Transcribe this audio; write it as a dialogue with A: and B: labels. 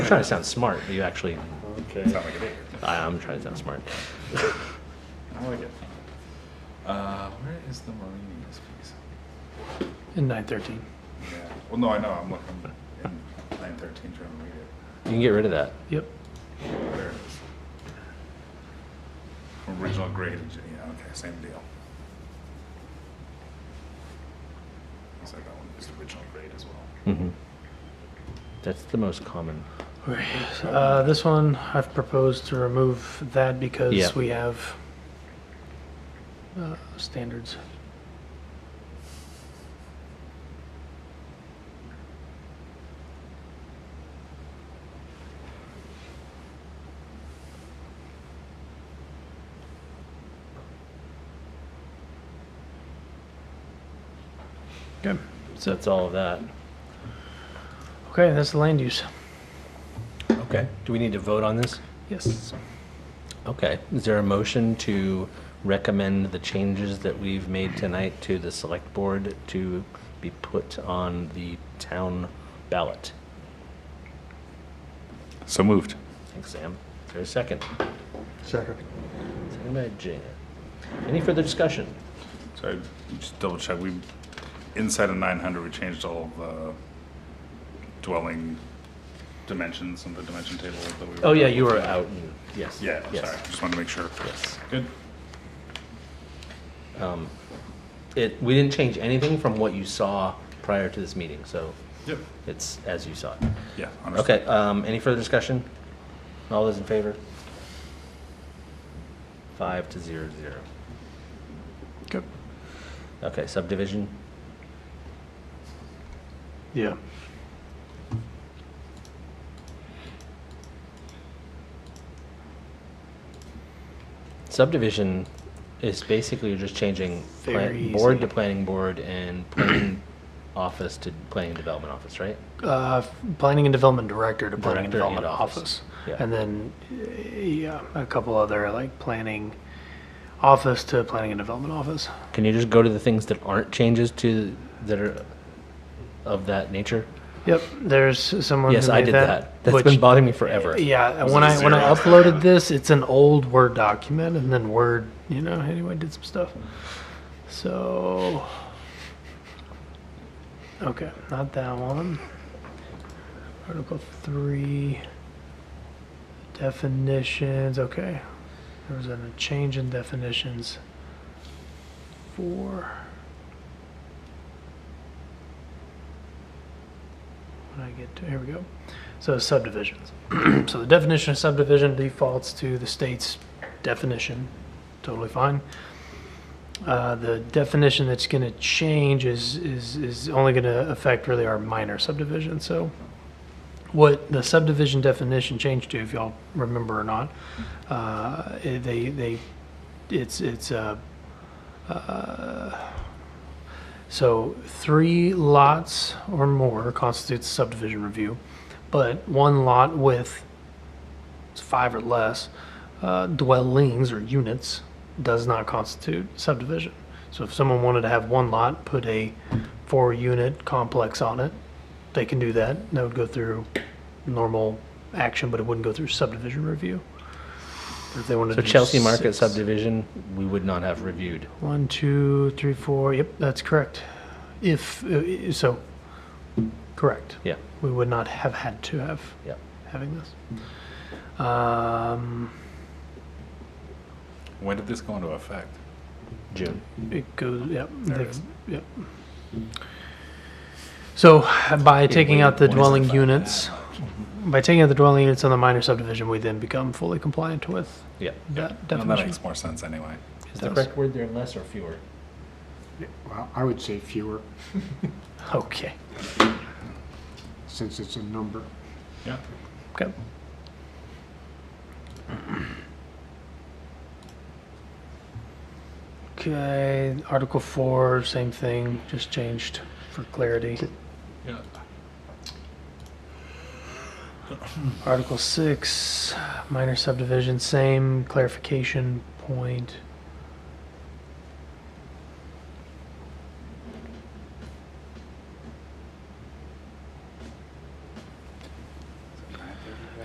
A: trying to sound smart. but You actually,
B: Okay,
C: like a big.
A: I, I'm trying to sound smart.
C: I like it. Uh, where is the Marini's piece?
D: in 913.
C: Yeah. Well, no, I know. I'm looking in nine thirteen trying to read it.
A: You can get rid of that.
D: Yep.
C: There it is. Original grade. Yeah. Okay. Same deal. So that one is original grade as well.
A: hmm That's the most common.
D: All right. Uh, this one I've proposed to remove that because
A: Yeah.
D: we have uh, standards. Okay.
A: So that's all of that.
D: Okay, that's the land use.
A: Okay. Do we need to vote on this?
D: Yes.
A: Okay. Is there a motion to recommend the changes that we've made tonight to the select board to be put on the town ballot?
C: So moved.
A: Thanks, Sam. Is there a second?
D: Second.
A: Second by Jan. Any further discussion?
C: So I just double check. We inside of nine hundred, we changed all the dwelling dimensions and the dimension table that we. were
A: Oh, yeah,
C: talking
A: you were
C: about.
A: out. and- Yes.
C: Yeah.
A: yes,
C: Sorry. Just wanted to make sure.
A: Yes.
C: Good.
A: Um, It, we didn't change anything from what you saw prior to this meeting, so
C: Yep.
A: it's as you saw it.
C: Yeah. understood.
A: Okay, um, any further discussion? All those in favor? Five to zero, zero.
D: Okay.
A: Okay, subdivision,
D: Yeah.
A: subdivision is basically you're just changing plan-
D: Very
A: board
D: easy.
A: to planning board and planning office to planning development office, right?
D: Uh, Planning and Development Director to Planning and
A: Director and
D: Development
A: office.
D: Office.
A: Yeah.
D: And then, uh, yeah, a couple other, like, Planning Office to Planning and Development Office.
A: Can you just go to the things that aren't changes to, that are of that nature?
D: Yep, there's someone who
A: Yes, I
D: made
A: did that. That's
D: which-
A: been bothering me forever.
D: Yeah,
C: Was
D: when
C: it
D: I, when I
C: zero?
D: uploaded this, it's an old Word document, and then Word, you know, anyway, did some stuff. So, okay, not that one. Article three, definitions, okay. There was a change in definitions. Four. When I get to, here we go. So subdivisions. so the definition of subdivision defaults to the state's definition. Totally fine. Uh, the definition that's going to change is, is, is only going to affect really our minor subdivision. So what the subdivision definition changed to, if y'all remember or not, uh, it- they, they, it's, it's, uh, So three lots or more constitutes subdivision review, but one lot with five or less uh, dwellings or units does not constitute subdivision. So if someone wanted to have one lot, put a four-unit complex on it, they can do that. That would go through normal action, but it wouldn't go through subdivision review. If they wanted
A: So
D: to do
A: Chelsea Market
D: six-
A: subdivision, we would not have reviewed.
D: one, two, three, four. Yep, that's correct. If uh, i- so, correct.
A: Yeah,
D: We would not have had to have
A: yeah.
D: having this. Um,
C: When did this go into effect?
A: June.
D: it goes. Yep.
C: There it
D: they've-
C: is.
D: Yep. So by taking out the
C: when is the
D: dwelling
C: fact?
D: units, by taking out the dwelling units on the minor subdivision, we then become fully compliant with
A: Yeah.
D: that
C: Well, that
D: definition.
C: makes more sense anyway.
A: Is the
D: does.
A: correct word there less or fewer?
E: Well, I would say fewer,
D: Okay.
E: since it's a number.
C: Yeah.
D: Okay. Okay, Article four, same thing, just changed for clarity.
C: Yeah.
D: Article six, minor subdivision, same clarification point.